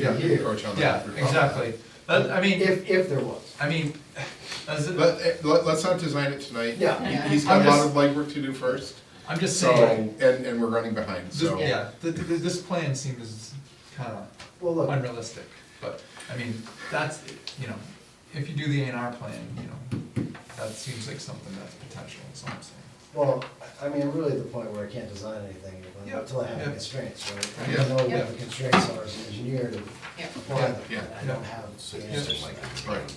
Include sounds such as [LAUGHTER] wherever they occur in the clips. Yeah, Yeah. approach on that. Yeah, You're probably- exactly. But, I mean, If, if there was. I mean, as, it- Let, eh, let, let's not design it tonight. Yeah. He- He's got I'm a lot just- of legwork to do first, I'm just so, saying, and, and we're running behind, this, so. yeah, th- th- this plan seems kinda Well, look, unrealistic, but, I mean, that's, you know, if you do the A and R plan, you know, that seems like something that's potential, that's all I'm saying. well, I I mean, really at the point where I can't design anything Yeah. until I have Yeah. constraints, right? I Yeah. don't know Yeah. what the constraints are as an engineer to Yeah. apply them. Yeah. I don't have the answers like that. Right.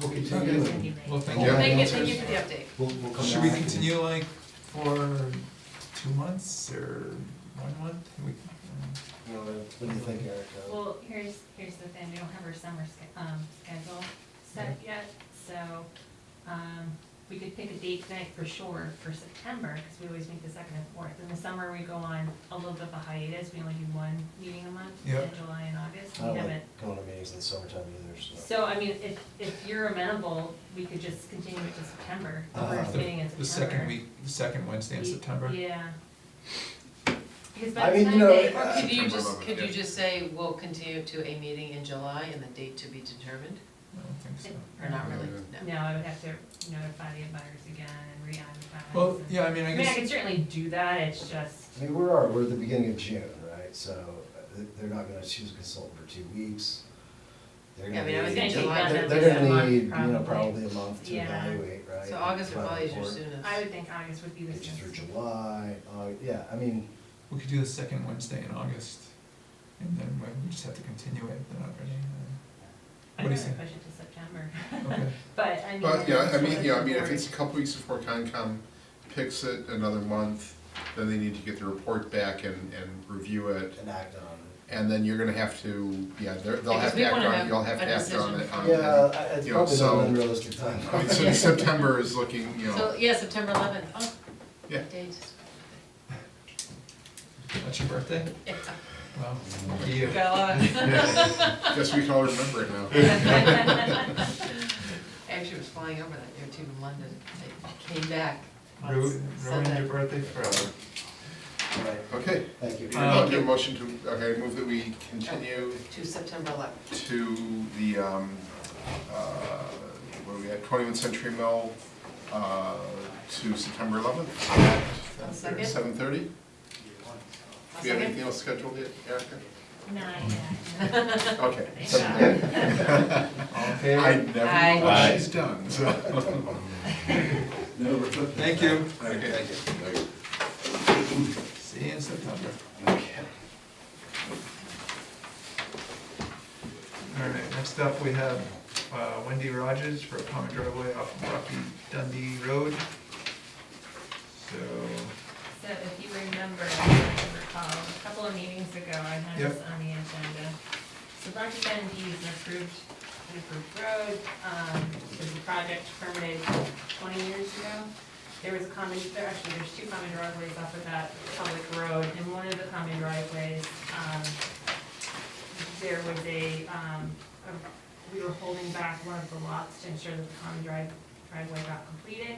We'll continue. Okay. Well, thank Yeah. Thank you. you, thank you for the update. We'll, we'll come back. Should we and- continue like for two months or one month? We- What do you think, Eric? Uh, Well, here's, here's the thing, we don't have our summer sch- um, schedule set yet, so, um, we could pick a date tonight for sure for September, because we always meet the second and fourth. In the summer, we go on a little bit of a hiatus, we only do one meeting a month, in Yep. July and August, I we don't haven't. like going to meetings in the summertime either, so. So, I mean, if, if you're amenable, we could just continue it to September, the Uh, first the- meeting in September. The second week, the second Wednesday in Ye- September? Yeah. Because I by the mean, you time know, they, uh, Or could you just, September could you eleventh, yeah. just say, we'll continue to a meeting in July and the date to be determined? I don't think so. Or not really? No, I would have to notify the abutters again and re-advertise. Well, and- yeah, I mean, I I mean, I guess. could certainly do that, it's just, I mean, where are, we? we're at the beginning of June, right? So uh, th- they're not gonna choose a consultant for two weeks. They're Yeah, I mean, I gonna would need- think they're- July They're would they're be a gonna month, need, you know, probably. probably a month to Yeah. evaluate, right? So August or Final probably is your report. soonest. I would think August would be the Get you through soonest. July, uh, yeah, I mean, We could do the second Wednesday in August, and then we- we just have to continue it, then already. I'd What do you rather push say? it to September, Uh, Okay. [LAUGHS] but I mean. But, yeah, I mean, yeah, I mean, if it's [LAUGHS] it's a couple weeks before Concom picks it another month, then they need to get the report back and, and review it. enact on And then you're gonna have to, yeah, they're, they'll have Because to we act wanna on it, have you'll have to a act on decision it. from- it. on- Yeah, I- it's You know, probably not so- an unrealistic time. I mean, so September is looking, you So, know, yeah, September eleventh, oh, yeah, date. [LAUGHS] That's your birthday? Yeah. Wow. Lucky you. Got a lot. guess we can all remember it [LAUGHS] now. Actually, was flying over that year too in London. I came back on Ru- Ruined your Sunday. birthday forever. [LAUGHS] Right, Okay, Thank you. Uh, I'll do a motion to, okay, move that we continue To September eleventh. to the, um, uh, what are we at, twenty-one Century Mill, uh, to September eleventh at I'll second. seven thirty? I'll Do you have second. anything else scheduled yet, [LAUGHS] Erica? Nine, [LAUGHS] [LAUGHS] yeah. Okay. 7:30. All [LAUGHS] in I favor? never know Aye. what she's done, so. [LAUGHS] Thank you. Okay, thank you. See you in September. All right, next up, we have uh, Wendy Rogers for a common driveway off of Rocky Dundee Road. So, So if you remember, if you recall, a couple of meetings ago, I had this Yep. on the agenda. So Rocky Dundee is an approved, an approved road, um, it was a project permitted twenty years ago. There was a common, there actually, there's two common driveways off of that public road, and one of the common driveways, um, there was a, um, a- we were holding back one of the lots to ensure that the common drive, driveway got completed.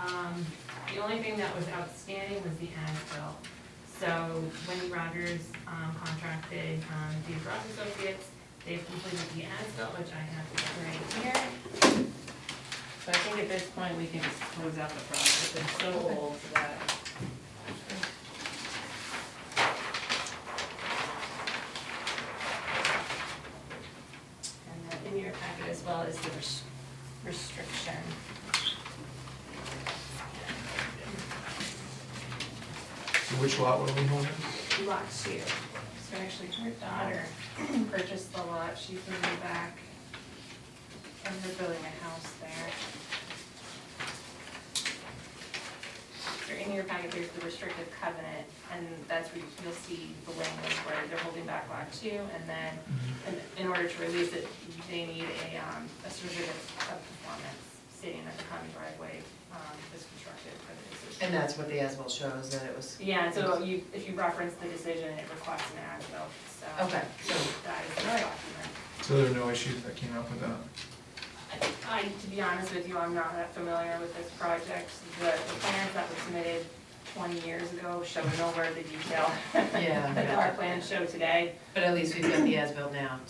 Um, the only thing that was outstanding was the as-built. So Wendy Rogers um, contracted um, these Ross Associates, they've completed the as-built, which I have right here. So I think at this point, we can just close out the project, it's so old that. And then in your packet as well is the res- restriction. so which lot were we holding? lot two. So actually, her daughter [CLEARS THROAT] purchased the lot, she's moving back, and they're building a house there. So in your packet, there's the restrictive covenant, and that's where you'll see the language where they're holding back lot two, and then in- in order to release it, they need a, um, a certificate of performance stating that the common driveway, um, is constructed for the decision. And that's what the as-built shows, that it was, Yeah, so you, if you reference the decision, it requests an as-built, so. okay, so, That is the document. So there were no issues that came up with that? I, to be honest with you, I'm not that familiar with this project. The the plans that were submitted twenty years ago show nowhere the detail [LAUGHS] Yeah, that our yeah. plans show today. but at least we've got the as-built now.